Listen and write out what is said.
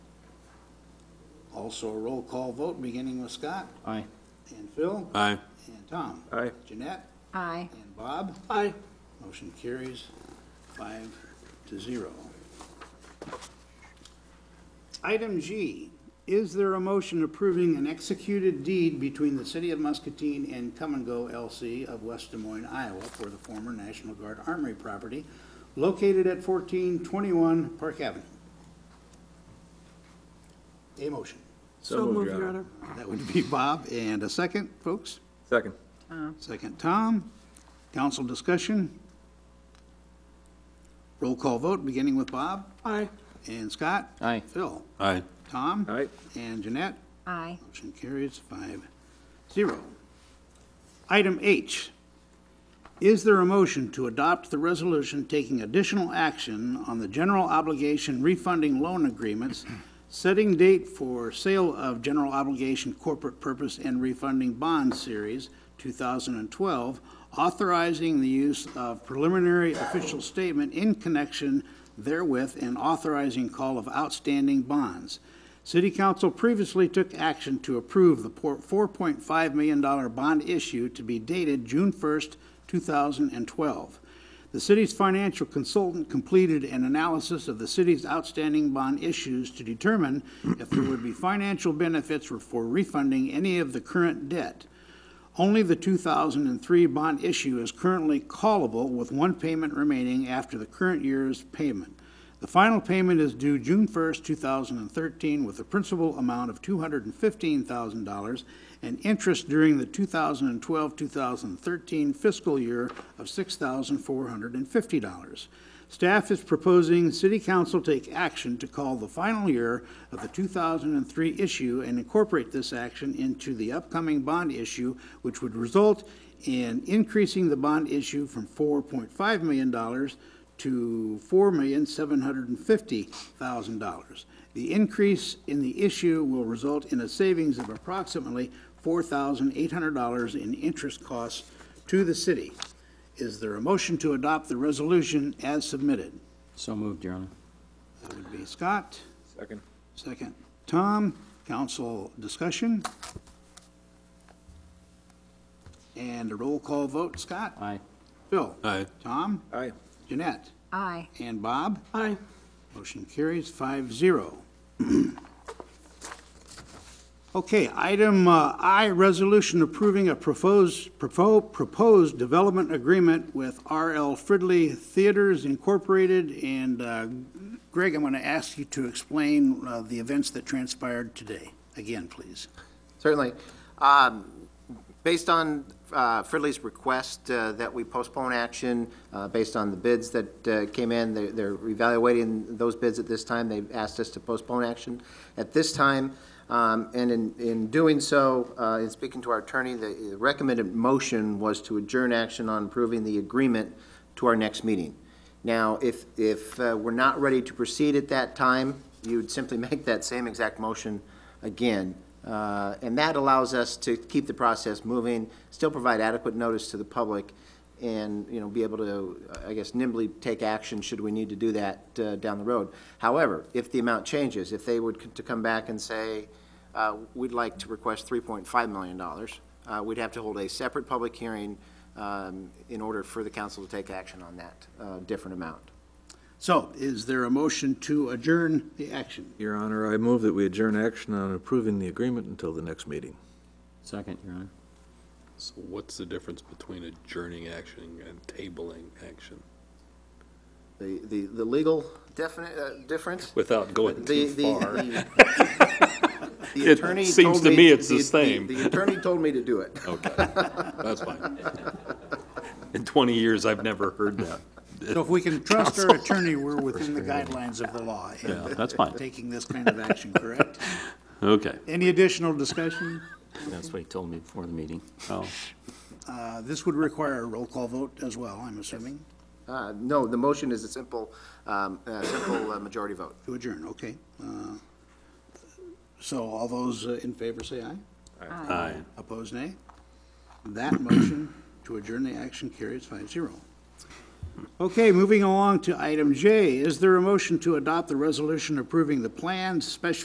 Also a roll call vote, beginning with Scott Aye. and Phil Aye. and Tom. Aye. Jeanette Aye. and Bob. Aye. Motion carries five to zero. Item G, is there a motion approving an executed deed between the City of Muscatine and Come and Go LC of West Des Moines, Iowa for the former National Guard Armory property located at fourteen twenty-one Park Avenue? A motion. So moved, Your Honor. That would be Bob, and a second, folks? Second. Second, Tom. Council discussion. Roll call vote, beginning with Bob. Aye. And Scott. Aye. Phil. Aye. Tom. Aye. And Jeanette. Aye. Motion carries five zero. Item H, is there a motion to adopt the resolution taking additional action on the general obligation refunding loan agreements, setting date for sale of general obligation corporate purpose and refunding bond series 2012, authorizing the use of preliminary official statement in connection therewith and authorizing call of outstanding bonds. City Council previously took action to approve the por- $4.5 million bond issue to be dated June 1st, 2012. The city's financial consultant completed an analysis of the city's outstanding bond issues to determine if there would be financial benefits for refunding any of the current debt. Only the 2003 bond issue is currently callable with one payment remaining after the current year's payment. The final payment is due June 1st, 2013, with a principal amount of $215,000 and interest during the 2012-2013 fiscal year of $6,450. Staff is proposing City Council take action to call the final year of the 2003 issue and incorporate this action into the upcoming bond issue, which would result in increasing the bond issue from $4.5 million to $4,750,000. The increase in the issue will result in a savings of approximately $4,800 in interest costs to the city. Is there a motion to adopt the resolution as submitted? So moved, Your Honor. That would be Scott. Second. Second, Tom. Council discussion? And a roll call vote. Scott? Aye. Bill? Aye. Tom? Aye. Jeanette? Aye. And Bob? Aye. Motion carries five zero. Okay, item uh, I, resolution approving a proposed, propo- proposed development agreement with R.L. Fridley Theaters Incorporated. And uh, Greg, I'm going to ask you to explain uh, the events that transpired today, again, please. Certainly. Um, Based on uh, Fridley's request uh, that we postpone action, uh, based on the bids that uh, came in, they're- they're evaluating those bids at this time. They've asked us to postpone action at this time. Um, And in, in doing so, uh, in speaking to our attorney, the recommended motion was to adjourn action on approving the agreement to our next meeting. Now, if, if uh, we're not ready to proceed at that time, you would simply make that same exact motion again. Uh, And that allows us to keep the process moving, still provide adequate notice to the public, and, you know, be able to, uh, I guess, nimbly take action should we need to do that uh, down the road. However, if the amount changes, if they would c- to come back and say, uh, we'd like to request $3.5 million, uh, we'd have to hold a separate public hearing um, in order for the council to take action on that uh, different amount. So is there a motion to adjourn the action? Your Honor, I move that we adjourn action on approving the agreement until the next meeting. Second, Your Honor. So what's the difference between adjourning action and tabling action? The, the, the legal definite, uh, difference? Without going The- too the- far. the- the It attorney seems told to me it's the same. Oh. The attorney told me to do it. Okay, that's fine. In 20 years, I've never heard that. So if we can trust our attorney, we're within the guidelines of the law in Yeah, that's fine. taking this kind of action, correct? Okay. Any additional discussion? That's what he told me before the meeting. Oh, Uh, This would require a roll call vote as well, I'm assuming, Uh, No, the motion is a simple, um, uh, simple uh, majority vote. to adjourn, okay. Uh, So all those uh, in favor say aye. aye. Opposed, nay? That motion to adjourn the action carries 5-0. Okay, moving along to item J. Is there a motion to adopt the resolution approving the planned special